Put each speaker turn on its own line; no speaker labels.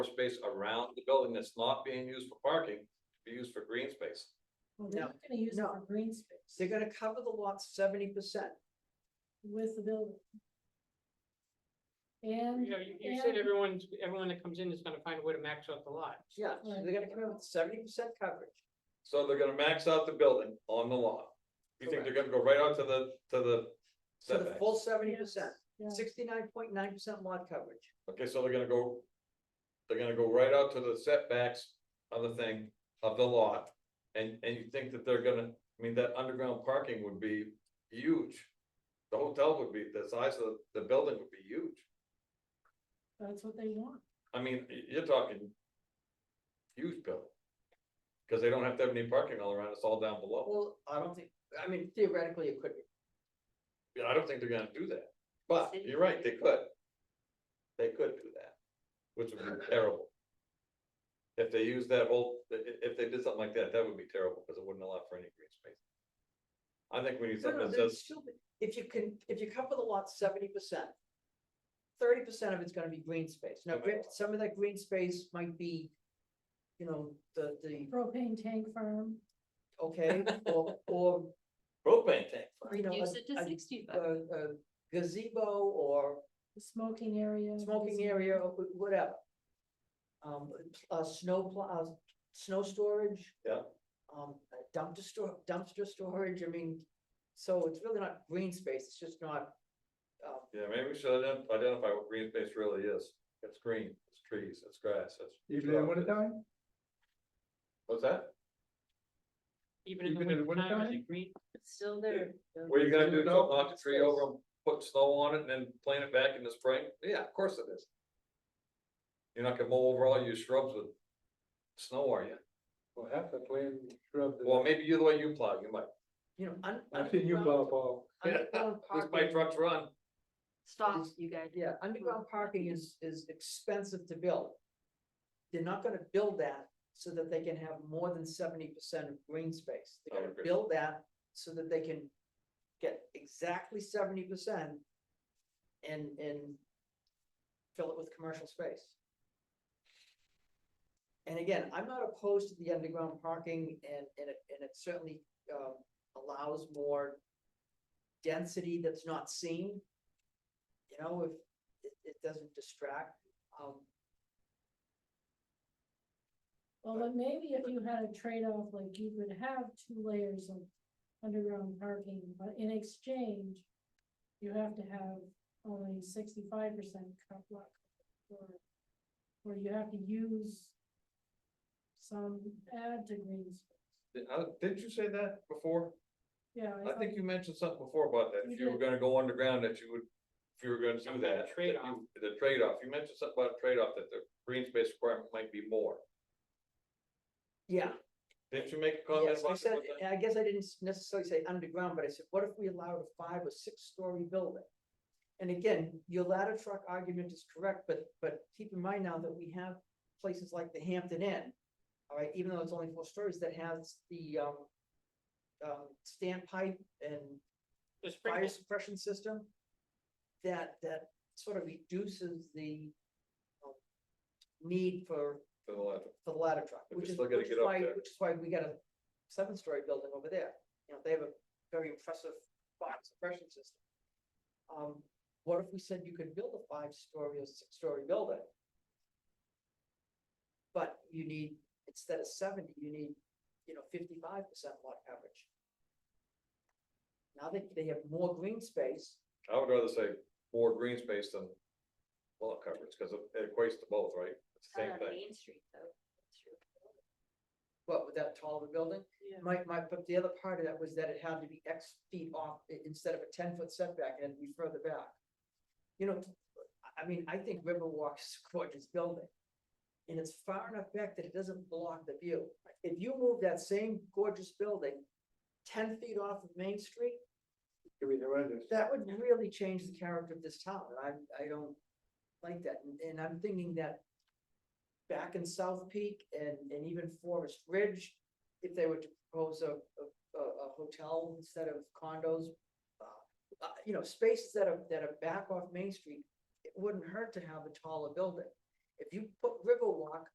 space around the building that's not being used for parking, be used for green space.
Well, they're
No.
not gonna use it
No.
for green space
They're gonna cover the lot seventy percent.
with the building. And.
You know, you, you
and-
said everyone's, everyone that comes in is gonna find a way to max out the lot.
Yeah, so they're gonna come in with seventy percent coverage.
So they're gonna max out the building on the lot. You think they're gonna go right out to the, to the
So the
setback?
full seventy percent,
Yeah.
sixty-nine point nine percent lot coverage.
Okay, so they're gonna go, they're gonna go right out to the setbacks of the thing, of the lot. And, and you think that they're gonna, I mean, that underground parking would be huge. The hotel would be, the size of the building would be huge.
That's what they want.
I mean, y- you're talking huge bill. Cause they don't have to have any parking all around, it's all down below.
Well, I don't think, I mean theoretically it could be.
Yeah, I don't think they're gonna do that, but you're right, they could. They could do that, which would be terrible. If they use that whole, i- i- if they did something like that, that would be terrible, cause it wouldn't allow for any green space. I think we need
No, no,
something that
there's
says,
still be- If you can, if you cover the lot seventy percent, thirty percent of it's gonna be green space. Now, gr- some of that green space might be, you know, the, the,
Propane tank farm.
okay, or, or,
propane tank,
you know,
Reduce it to
a- a- a
sixty-five.
a gazebo or
the smoking area.
smoking
is-
area, or wh- whatever. Um, uh, snow plow, uh, snow storage.
Yeah.
Um, dumpster store, dumpster storage, I mean, so it's really not green space, it's just not. Um,
yeah, maybe we should ident- identify what green space really is. It's green, it's trees, it's grass, it's.
Even in winter time?
What's that?
Even in the
Even in the
winter time,
wintertime?
is it green?
It's still there.
What are you gonna do,
Remove it
don't
all?
knock the tree over, and put snow on it and then plant it back in the spring? Yeah, of course it is. You're not gonna mow over all your shrubs with snow, are you?
Well, half the plan shrub. that-
Well, maybe you, the way you plow, you might.
you know, un-
I've seen you plow, Paul.
underground
At least my
parking-
trucks run.
Stop, you guys.
Yeah, underground parking is, is expensive to build. They're not gonna build that so that they can have more than seventy percent of green space.
I
They're gonna
agree.
build that so that they can get exactly seventy percent and, and fill it with commercial space. And again, I'm not opposed to the underground parking and, and it, and it certainly, um, allows more density that's not seen. You know, if, it, it doesn't distract, um,
Well, but maybe if you had a trade-off, like you could have two layers of underground parking, but in exchange, you have to have only sixty-five percent cut block. Or, or you have to use some add to green space.
Did, uh, didn't you say that before?
Yeah.
I think you mentioned something before about that,
We
if you were gonna go underground, that you would, if you were gonna do
Something
that. that you-
trade-off.
The trade-off, you mentioned something about a trade-off, that the green space requirement might be more.
yeah.
Didn't you make a comment
Yes, I
about
said,
that?
and I guess I didn't s- necessarily say underground, but I said, what if we allowed a five or six-story building? And again, your ladder truck argument is correct, but, but keep in mind now that we have places like the Hampton Inn. All right, even though it's only four stories, that has the, um, um, standpipe and
The
fire
spring,
suppression system. That, that sort of reduces the um, need for
To the left.
for the ladder truck,
But
which
you
is,
still gotta
which is
get up
why,
there.
which is why we got a seven-story building over there. You know, they have a very impressive fire suppression system. Um, what if we said you could build a five-story or six-story building? But you need, instead of seventy, you need, you know, fifty-five percent lot coverage. Now they, they have more green space,
I would rather say more green space than lot coverage, because it equates to both, right? It's the same
Not on
thing.
Main Street, though. That's true.
what, with that tall of a building? My, my, but the other part of that was that it had to be X feet off, i- instead of a ten foot setback, it had to be further back. You know, I, I mean, I think Riverwalk is a gorgeous building. And it's far enough back that it doesn't block the view. If you move that same gorgeous building ten feet off of Main Street,
It'd be horrendous.
that would really change the character of this town, and I, I don't like that, and, and I'm thinking that back in South Peak and, and even Forest Ridge, if they were to propose a, a, a a hotel instead of condos, uh, uh, you know, spaces that are, that are back off Main Street, it wouldn't hurt to have a taller building. If you put Riverwalk